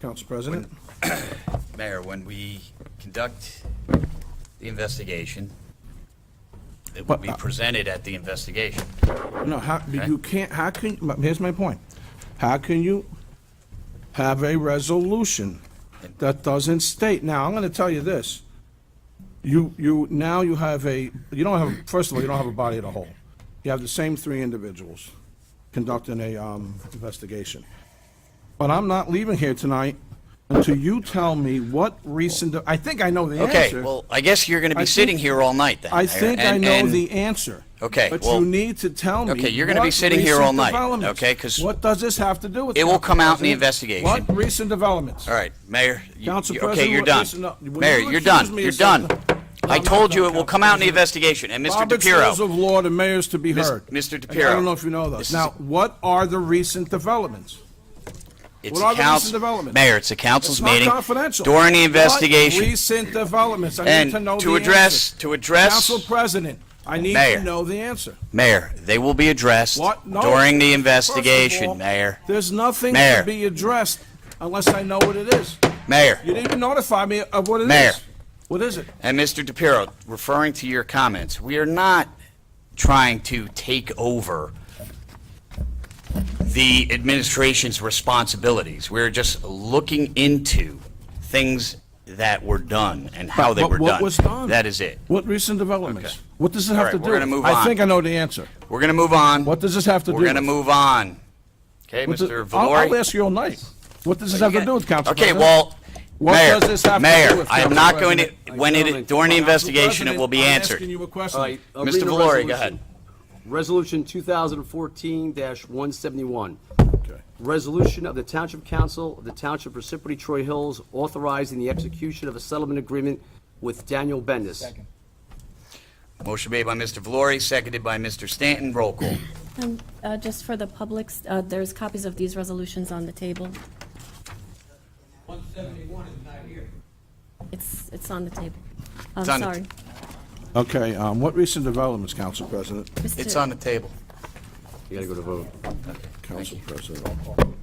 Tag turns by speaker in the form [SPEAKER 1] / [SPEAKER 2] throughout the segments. [SPEAKER 1] Council President?
[SPEAKER 2] Mayor, when we conduct the investigation, it will
[SPEAKER 1] But,
[SPEAKER 2] be
[SPEAKER 1] uh,
[SPEAKER 2] presented at the investigation.
[SPEAKER 1] No, how,
[SPEAKER 2] Okay.
[SPEAKER 1] you can't, how can, but here's my point. How can you have a resolution that doesn't state, now, I'm gonna tell you this. You, you, now you have a, you don't have, first of all, you don't have a body of the whole. You have the same three individuals conducting a, um, investigation. But I'm not leaving here tonight until you tell me what recent, I think I know the answer.
[SPEAKER 2] Okay, well, I guess you're going to
[SPEAKER 1] I
[SPEAKER 2] be
[SPEAKER 1] think-
[SPEAKER 2] sitting here all night then.
[SPEAKER 1] I
[SPEAKER 2] Mayor,
[SPEAKER 1] think I
[SPEAKER 2] and-
[SPEAKER 1] know
[SPEAKER 2] and-
[SPEAKER 1] the answer.
[SPEAKER 2] Okay,
[SPEAKER 1] But
[SPEAKER 2] well-
[SPEAKER 1] you need to tell me.
[SPEAKER 2] Okay, you're gonna be
[SPEAKER 1] what
[SPEAKER 2] sitting here all
[SPEAKER 1] recent
[SPEAKER 2] night,
[SPEAKER 1] developments-
[SPEAKER 2] okay, 'cause
[SPEAKER 1] What does this have to do with?
[SPEAKER 2] it will
[SPEAKER 1] Council
[SPEAKER 2] come out in the
[SPEAKER 1] President?
[SPEAKER 2] investigation.
[SPEAKER 1] What recent developments?
[SPEAKER 2] All right, Mayor, you-
[SPEAKER 1] Council
[SPEAKER 2] you- okay,
[SPEAKER 1] President,
[SPEAKER 2] you're
[SPEAKER 1] what-
[SPEAKER 2] done.
[SPEAKER 1] listen up. Will
[SPEAKER 2] Mayor,
[SPEAKER 1] you
[SPEAKER 2] you're
[SPEAKER 1] accuse
[SPEAKER 2] done,
[SPEAKER 1] me
[SPEAKER 2] you're
[SPEAKER 1] of something?
[SPEAKER 2] done.
[SPEAKER 1] No,
[SPEAKER 2] I
[SPEAKER 1] I'm
[SPEAKER 2] told
[SPEAKER 1] not
[SPEAKER 2] you
[SPEAKER 1] done,
[SPEAKER 2] it will
[SPEAKER 1] Council
[SPEAKER 2] come out in the
[SPEAKER 1] President.
[SPEAKER 2] investigation, and Mr.
[SPEAKER 1] Robert's rules
[SPEAKER 2] DePiero,
[SPEAKER 1] of law, the mayor's to be
[SPEAKER 2] Mis-
[SPEAKER 1] heard.
[SPEAKER 2] Mr.
[SPEAKER 1] I don't
[SPEAKER 2] DePiero,
[SPEAKER 1] know if you know those.
[SPEAKER 2] this
[SPEAKER 1] Now,
[SPEAKER 2] is-
[SPEAKER 1] what are the recent developments?
[SPEAKER 2] it's
[SPEAKER 1] What
[SPEAKER 2] a
[SPEAKER 1] are the recent
[SPEAKER 2] council,
[SPEAKER 1] developments?
[SPEAKER 2] Mayor, it's a
[SPEAKER 1] It's
[SPEAKER 2] council's
[SPEAKER 1] not
[SPEAKER 2] meeting.
[SPEAKER 1] confidential.
[SPEAKER 2] During the
[SPEAKER 1] What
[SPEAKER 2] investigation,
[SPEAKER 1] recent developments? I need to know
[SPEAKER 2] and
[SPEAKER 1] the
[SPEAKER 2] to address,
[SPEAKER 1] answer.
[SPEAKER 2] to address,
[SPEAKER 1] Council President, I need
[SPEAKER 2] Mayor.
[SPEAKER 1] to know the answer.
[SPEAKER 2] Mayor, they will be addressed
[SPEAKER 1] What? No.
[SPEAKER 2] during
[SPEAKER 1] First
[SPEAKER 2] the
[SPEAKER 1] of all,
[SPEAKER 2] investigation, Mayor.
[SPEAKER 1] There's nothing to
[SPEAKER 2] Mayor.
[SPEAKER 1] be addressed unless I know what it is.
[SPEAKER 2] Mayor.
[SPEAKER 1] You didn't even notify me of what it is.
[SPEAKER 2] Mayor.
[SPEAKER 1] What is it?
[SPEAKER 2] And Mr. DePiero, referring to your comments, we are not trying to take over the administration's responsibilities. We're just looking into things that were done and how they
[SPEAKER 1] But
[SPEAKER 2] were done.
[SPEAKER 1] What was done?
[SPEAKER 2] That is it.
[SPEAKER 1] What recent developments?
[SPEAKER 2] Okay.
[SPEAKER 1] What does it
[SPEAKER 2] All
[SPEAKER 1] have
[SPEAKER 2] right,
[SPEAKER 1] to do?
[SPEAKER 2] we're gonna move
[SPEAKER 1] I
[SPEAKER 2] on.
[SPEAKER 1] think I know the answer.
[SPEAKER 2] We're going to move on.
[SPEAKER 1] What does this have to do?
[SPEAKER 2] We're going to
[SPEAKER 1] with-
[SPEAKER 2] move on. Okay,
[SPEAKER 1] what does-
[SPEAKER 2] Mr.
[SPEAKER 1] I'll- I'll
[SPEAKER 2] Valori?
[SPEAKER 1] ask you all night. What does this have to do with Council
[SPEAKER 2] Okay,
[SPEAKER 1] President?
[SPEAKER 2] well,
[SPEAKER 1] What
[SPEAKER 2] Mayor,
[SPEAKER 1] does this have to do
[SPEAKER 2] Mayor,
[SPEAKER 1] with
[SPEAKER 2] I am
[SPEAKER 1] Council
[SPEAKER 2] not going to,
[SPEAKER 1] President?
[SPEAKER 2] when it, during the
[SPEAKER 1] Council
[SPEAKER 2] investigation, it will be
[SPEAKER 1] President,
[SPEAKER 2] answered.
[SPEAKER 1] I'm asking you a question.
[SPEAKER 3] All right, I'll
[SPEAKER 2] Mr.
[SPEAKER 3] read
[SPEAKER 2] Valori,
[SPEAKER 3] the
[SPEAKER 2] go
[SPEAKER 3] resolution.
[SPEAKER 2] ahead.
[SPEAKER 3] Resolution 2014-171.
[SPEAKER 1] Okay.
[SPEAKER 3] Resolution of the Township Council of the Township Precipity Troy Hills authorizing the execution of a settlement agreement with Daniel Bendis.
[SPEAKER 2] Motion made by Mr. Valori, seconded by Mr. Stanton. Roll call.
[SPEAKER 4] Um, uh, Just for the public, uh, there's copies of these resolutions on the table.
[SPEAKER 5] 171 is not here.
[SPEAKER 4] It's, it's on the table. I'm
[SPEAKER 2] It's on the-
[SPEAKER 4] sorry.
[SPEAKER 1] Okay, um, what recent developments, Council President?
[SPEAKER 2] It's
[SPEAKER 4] Mr.
[SPEAKER 2] on the table.
[SPEAKER 3] You gotta go to vote.
[SPEAKER 1] Council President.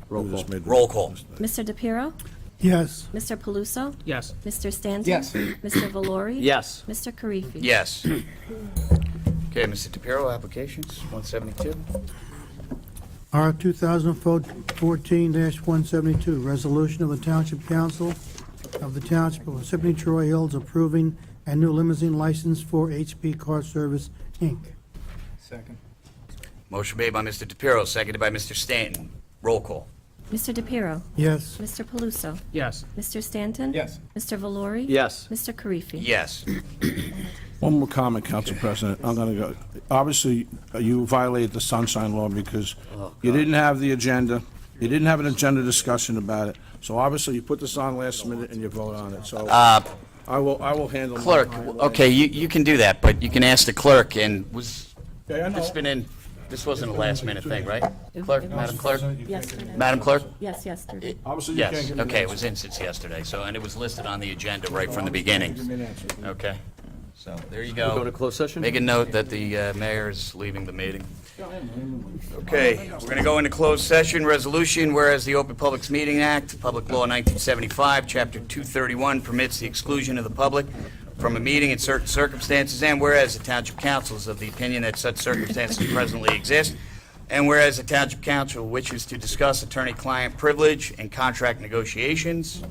[SPEAKER 1] Roll call.
[SPEAKER 2] Roll call.
[SPEAKER 4] Mr. DePiero?
[SPEAKER 6] Yes.
[SPEAKER 4] Mr. Paluso?
[SPEAKER 6] Yes.
[SPEAKER 4] Mr. Stanton?
[SPEAKER 6] Yes.
[SPEAKER 4] Mr. Valori?
[SPEAKER 3] Yes.
[SPEAKER 4] Mr. Karifi?
[SPEAKER 2] Yes. Okay, Mr. DePiero, applications, 172.
[SPEAKER 6] R 2014-172, resolution of the Township Council of the Township of Parsippany Troy Hills approving a new limousine license for HP Car Service, Inc.
[SPEAKER 5] Second.
[SPEAKER 2] Motion made by Mr. DePiero, seconded by Mr. Stanton. Roll call.
[SPEAKER 4] Mr. DePiero?
[SPEAKER 6] Yes.
[SPEAKER 4] Mr. Paluso?
[SPEAKER 6] Yes.
[SPEAKER 4] Mr. Stanton?
[SPEAKER 5] Yes.
[SPEAKER 4] Mr. Valori?
[SPEAKER 3] Yes.
[SPEAKER 4] Mr. Karifi?
[SPEAKER 2] Yes.
[SPEAKER 1] One more comment, Council President. I'm going to go, obviously, uh, you violated the sunshine law because
[SPEAKER 2] Oh,
[SPEAKER 1] you didn't have the agenda. You didn't have an agenda discussion about it. So obviously, you put this on last minute and you vote on it. So I will, I will handle. my-
[SPEAKER 2] Uh, Clerk,
[SPEAKER 1] my-
[SPEAKER 2] okay, you, you can do that, but you can ask the clerk, and was,
[SPEAKER 1] Yeah, I know.
[SPEAKER 2] it's been in, this wasn't a last-minute thing, right? Clerk, Madam Clerk?
[SPEAKER 4] Yes, it is.
[SPEAKER 2] Madam Clerk?
[SPEAKER 4] Yes, yes, there it is.
[SPEAKER 1] Obviously, you can't
[SPEAKER 2] Yes,
[SPEAKER 1] give me an
[SPEAKER 2] okay, it
[SPEAKER 1] answer.
[SPEAKER 2] was in since yesterday, so, and it was listed on the agenda right from the
[SPEAKER 1] Give me an
[SPEAKER 2] beginning.
[SPEAKER 1] answer.
[SPEAKER 2] Okay, so, there you
[SPEAKER 3] Go to
[SPEAKER 2] go.
[SPEAKER 3] closed session?
[SPEAKER 2] Make a note that the uh, mayor is leaving the meeting. Okay, we're going to go into closed session resolution, whereas the Open Publics Meeting Act, Public Law 1975, Chapter 231 permits the exclusion of the public from a meeting in certain circumstances, and whereas the Township Council is of the opinion that such circumstances presently exist, and whereas the Township Council wishes to discuss attorney-client privilege and contract negotiations,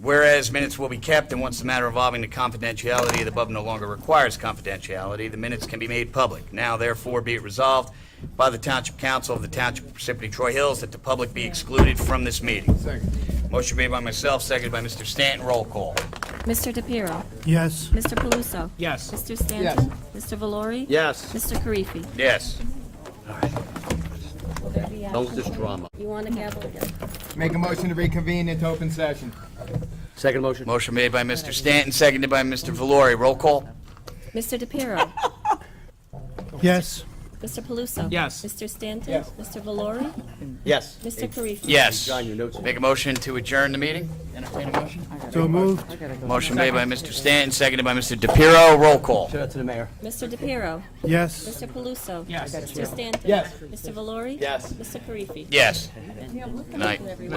[SPEAKER 2] Whereas minutes will be kept, and once the matter involving the confidentiality of the above no longer requires confidentiality, the minutes can be made public. Now therefore be it resolved by the Township Council of the Township of Parsippany Troy Hills that the public be excluded from this meeting. Second. Motion made by myself, seconded by Mr. Stanton. Roll call.
[SPEAKER 4] Mr. DePiero?
[SPEAKER 6] Yes.
[SPEAKER 4] Mr. Paluso?
[SPEAKER 6] Yes.
[SPEAKER 4] Mr. Stanton? Mr. Valori?
[SPEAKER 3] Yes.
[SPEAKER 4] Mr. Karifi?
[SPEAKER 2] Yes.
[SPEAKER 3] Done with this drama.
[SPEAKER 4] You want to gavel again?
[SPEAKER 5] Make a motion to reconvene into open session.
[SPEAKER 3] Second motion?
[SPEAKER 2] Motion made by Mr. Stanton, seconded by Mr. Valori. Roll call.
[SPEAKER 4] Mr. DePiero?
[SPEAKER 6] Yes.
[SPEAKER 4] Mr. Paluso?
[SPEAKER 6] Yes.
[SPEAKER 4] Mr. Stanton?
[SPEAKER 5] Yes.
[SPEAKER 4] Mr. Valori?
[SPEAKER 3] Yes.
[SPEAKER 4] Mr. Karifi?
[SPEAKER 2] Yes.
[SPEAKER 3] John, your notes.
[SPEAKER 2] Make a motion to adjourn the meeting. Entertain a motion.
[SPEAKER 6] So moved.
[SPEAKER 2] Motion made by Mr. Stanton, seconded by Mr. DePiero. Roll call.
[SPEAKER 3] Shout out to the mayor.
[SPEAKER 4] Mr. DePiero?
[SPEAKER 6] Yes.
[SPEAKER 4] Mr. Paluso? Yes. Mr. Stanton?
[SPEAKER 5] Yes.
[SPEAKER 4] Mr. Valori?
[SPEAKER 3] Yes.
[SPEAKER 4] Mr. Karifi?
[SPEAKER 2] Yes. Good night. Ladies.